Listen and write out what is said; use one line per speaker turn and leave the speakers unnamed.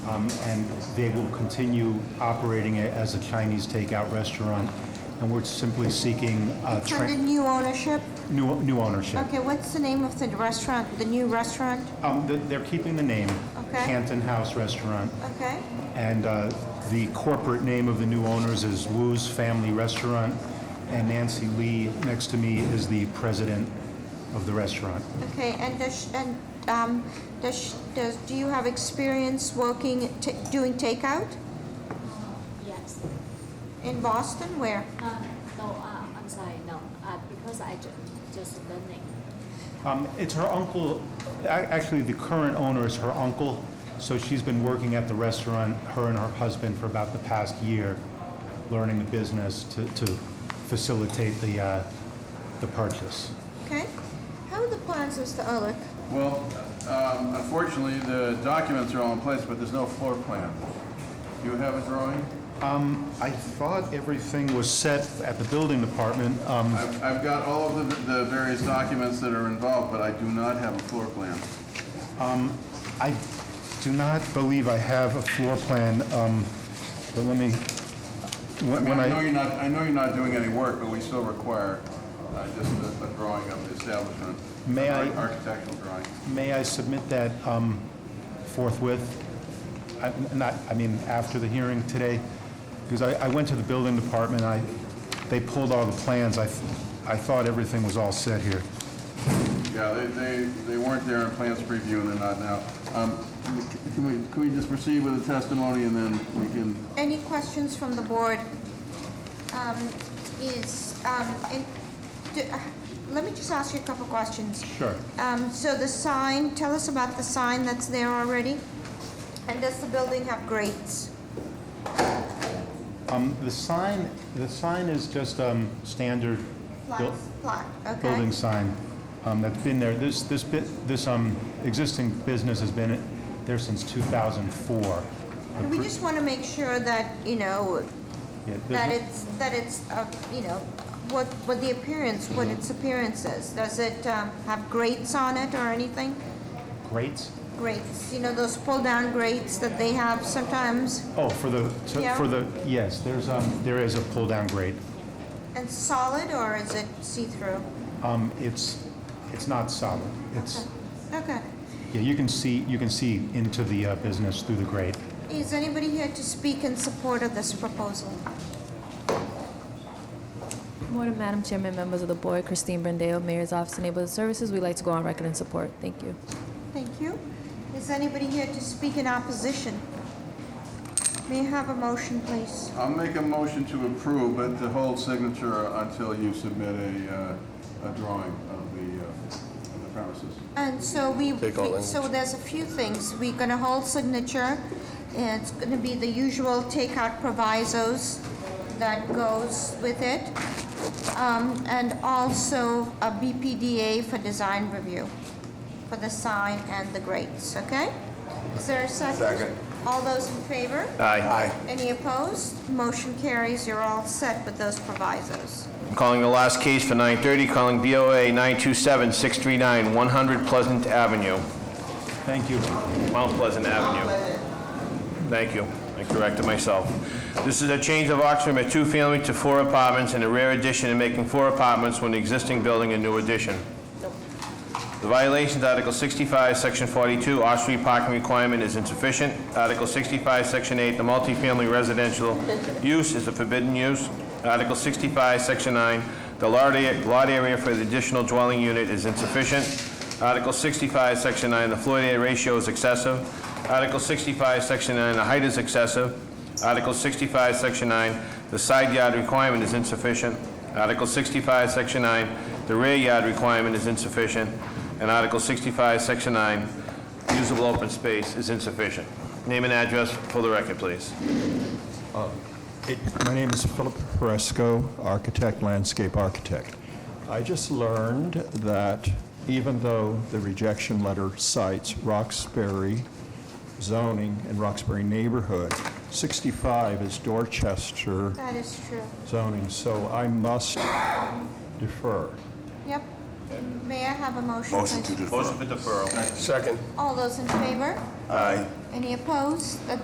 um, and they will continue operating it as a Chinese takeout restaurant, and we're simply seeking uh,
It's
tra-
under new ownership?
new new ownership.
Okay, what's the name of the restaurant, the new restaurant?
Um, th- They're keeping the name,
Okay. Uh,
Canton House Restaurant,
Okay,
and uh, the corporate name of the new owners is Wu's Family Restaurant, and Nancy Lee, next to me, is the president of the restaurant.
okay, and does, sh- and, um, does, sh- does, do you have experience working, ta- doing takeout
Yes.
in Boston? Where?
Uh, no, uh, I'm sorry, no, uh, because I ju- just learning.
Um, It's her uncle, a- actually, the current owner is her uncle, so she's been working at the restaurant, her and her husband, for about the past year, learning the business to to facilitate the uh, the purchase.
Okay. How are the plans, Mr. Ehrlich?
Well, um, unfortunately, the documents are all in place, but there's no floor plan. Do you have a drawing?
I thought everything was set at the building department. Um,
I've I've got all of the the various documents that are involved, but I do not have a floor plan.
I do not believe I have a floor plan, um, but let me,
I
when
mean,
when
I know
I,
you're not, I know you're not doing any work, but we still require uh, just a a drawing of the establishment.
May I-
Ar- Architectural drawing.
may I submit that um, forthwith? I- Not, I mean, after the hearing today? Because I I went to the building department, I, they pulled all the plans, I, th- I thought everything was all set here.
Yeah, they, they, they weren't there in plans preview, and they're not now. Um, Can we, can we just proceed with the testimony, and then we can
Any questions from the board? Um, Is, um, in- do- uh, let me just ask you a couple questions.
Sure.
Um, So the sign, tell us about the sign that's there already. And does the building have grates?
Um, The sign, the sign is just um, standard buil-
Flat, flat, okay.
building sign um, that's been there. This, this bit, this um, existing business has been there since 2004.
And We just want to make sure that, you know,
Yeah,
that
there's-
it's, that it's, uh, you know, what, what the appearance, what its appearance is. Does it um, have grates on it or anything?
Grates?
Grates, you know, those pull-down grates that they have sometimes,
Oh, for the, to-
Yeah.
for the, yes, there's, um, there is a pull-down grate.
and solid, or is it see-through?
Um, It's, it's not solid. It's,
Okay.
yeah, you can see, you can see into the uh, business through the grate.
Is anybody here to speak in support of this proposal?
Morning, Madam Chairman, members of the board, Christine Brandeo, Mayor's Office of Neighborhood Services. We'd like to go on record in support. Thank you.
Thank you. Is anybody here to speak in opposition? May I have a motion, please?
I'll make a motion to approve, but to hold signature until you submit a, uh, a drawing of the, uh, of the premises.
And so we, we- so there's a few things. We're going to hold signature, and it's going to be the usual takeout provisos that goes with it, Um, and also a BPDA for design review for the sign and the grates, okay? Is there a second?
Second.
All those in favor?
Aye.
Any opposed? Motion carries. You're all set with those provisos.
I'm calling the last case for 9:30, calling BOA 927-639-100 Pleasant Avenue,
Thank you.
Mount Pleasant Avenue. Thank you, I corrected myself. This is a change of occupancy from a two-family to four apartments and a rare addition in making four apartments when the existing building a new addition. The violations, Article 65, Section 42, off-street parking requirement is insufficient. Article 65, Section 8, the multifamily residential use is a forbidden use. Article 65, Section 9, the lot area lot area for the additional dwelling unit is insufficient. Article 65, Section 9, the floor area ratio is excessive. Article 65, Section 9, the height is excessive. Article 65, Section 9, the side yard requirement is insufficient. Article 65, Section 9, the rear yard requirement is insufficient, and Article 65, Section 9, usable open space is insufficient. Name and address for the record, please.
It- My name is Philip Fresco, architect, landscape architect. I just learned that even though the rejection letter cites Roxbury zoning and Roxbury neighborhood, 65 is Dorchester
That is true.
zoning, so I must defer.
Yep. May I have a motion, please?
Motion for deferral.
All those in favor? Aye. Any opposed? That